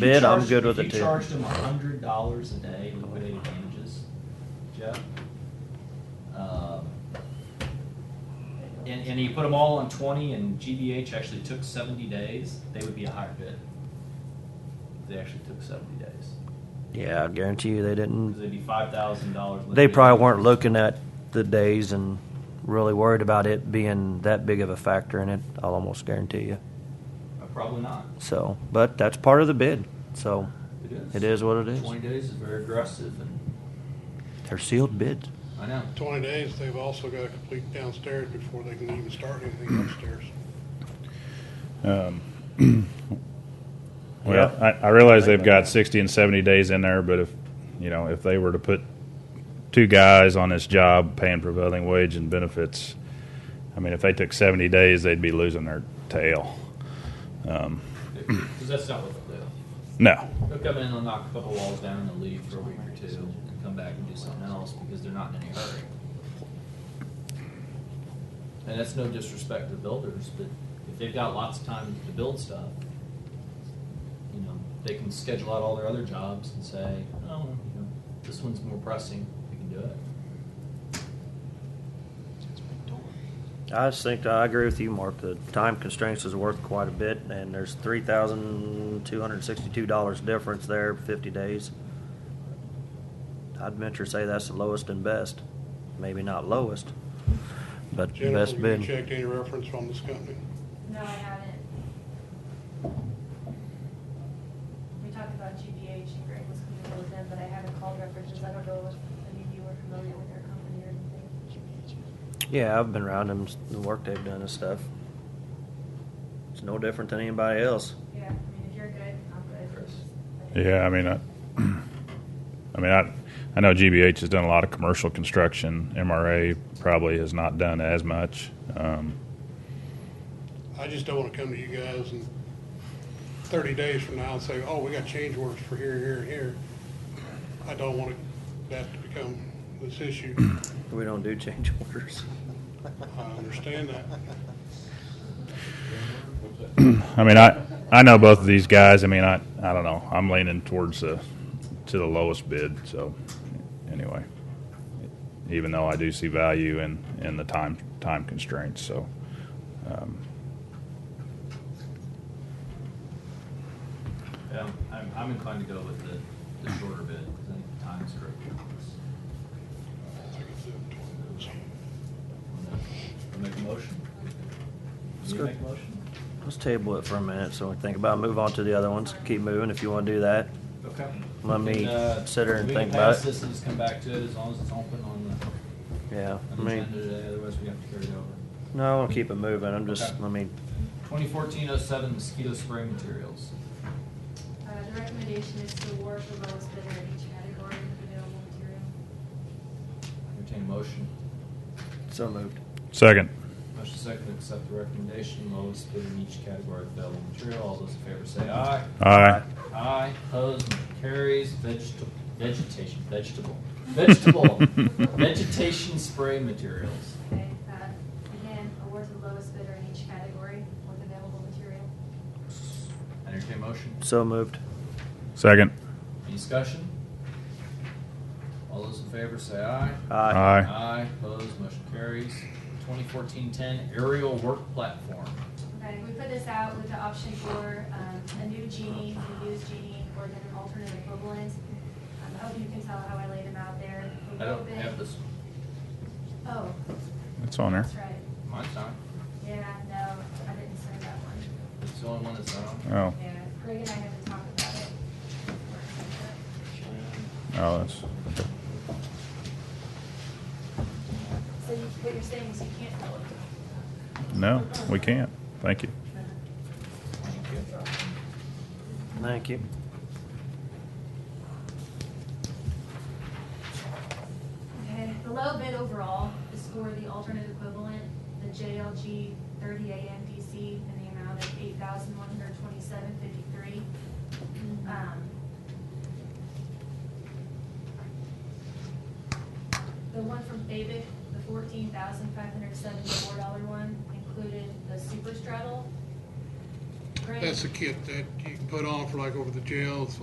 bid, I'm charged- good with it If too. you charged them a hundred dollars a day in liquidated damages, Jeff, um, and, and you put them all on twenty, and GBH actually took seventy days, they would be a higher bid. They actually took seventy days, Yeah, I guarantee you they because didn't. they'd be five thousand dollars. They probably weren't looking at the days and really worried about it being that big of a factor in it. I'll almost guarantee you. Uh, Probably not. So, but that's part of the bid. So It is. it is what it is. Twenty days is very aggressive, and They're sealed bids. I know. Twenty days, they've also got to complete downstairs before they can even start anything upstairs. Um, Yeah. Well, I, I realize they've got sixty and seventy days in there, but if, you know, if they were to put two guys on this job paying prevailing wage and benefits, I mean, if they took seventy days, they'd be losing their tail. Um, Because that's not what they'll do. no, They'll come in, they'll knock a couple walls down, and they'll leave for a week or two, and come back and do something else because they're not in any hurry. And that's no disrespect to builders, but if they've got lots of time to build stuff, you know, they can schedule out all their other jobs and say, oh, you know, this one's more pressing, we can do it. I just think I agree with you, Mark. The time constraints is worth quite a bit, and there's three thousand two hundred sixty-two dollars difference there, fifty days. I'd venture to say that's the lowest and best. Maybe not lowest, but Jennifer, best have bid. you checked any reference from this company? No, I haven't. We talked about GBH and Greg was familiar with them, but I haven't called references. I don't know if any of you are familiar with their company or anything. Yeah, I've been around them, the work they've done and stuff. It's no different than anybody else. Yeah, I mean, if you're good, I'm good. Chris. yeah, I mean, I, I mean, I, I know GBH has done a lot of commercial construction. MRA probably has not done as much. Um, I just don't want to come to you guys and thirty days from now and say, oh, we got change orders for here, here, and here. I don't want it- that to become this issue. We don't do change orders. I understand that. I mean, I I know both of these guys. I mean, I I don't know. I'm leaning towards the to the lowest bid. So anyway, even though I do see value in in the time time constraints, so um, Yeah, I'm, I'm inclined to go with the, the shorter bid because I think the time's great. I think it's up to us. I'll make a motion. Let's You go. make a motion? Let's table it for a minute so we think about it. move on to the other ones. Keep moving if you want to do that. Okay. Let me And, uh, sit here and we can think about pass it. this and just come back to it as long as it's open on Yeah, the, on I the mean, agenda today, otherwise we have to carry it over. no, I want to keep it moving. I'm just, Okay. I mean, Twenty fourteen oh seven mosquito spray materials. Uh, the recommendation is to award the lowest bidder in each category of available material. Entertain a motion. so moved. second, Motion second to accept the recommendation, lowest bid in each category of available material. All those in favor say aye. aye. Aye, opposed, motion carries, vegetable, vegetation, vegetable, vegetable, vegetation spray materials. Okay, uh, again, award the lowest bidder in each category with available material. Entertain a motion. So moved. Second, Any discussion? All those in favor say aye. Aye. aye. Aye, opposed, motion carries. 2014-10 aerial work platform. Okay, we put this out with the option for um, a new genie, a used genie, or then an alternate equivalent. Um, I hope you can tell how I laid them out there. I don't have this, Oh, It's on there. that's right. mine's not, Yeah, no, I didn't send that one. it's the only one that's not on. Oh, Yeah, Greg and I had to talk about it. oh, that's So you- what you're saying is you can't tell it. no. We can't. Thank you. Uh-huh. Thank Thank you. you. Okay, the low bid overall is for the alternate equivalent, the JLG thirty AM DC in the amount of eight thousand one hundred twenty-seven fifty-three. Um, The one from Fabic, the fourteen thousand five hundred seventy-four dollar one, included the super straddle, Grant- That's the kit that you can put on for like over the jails,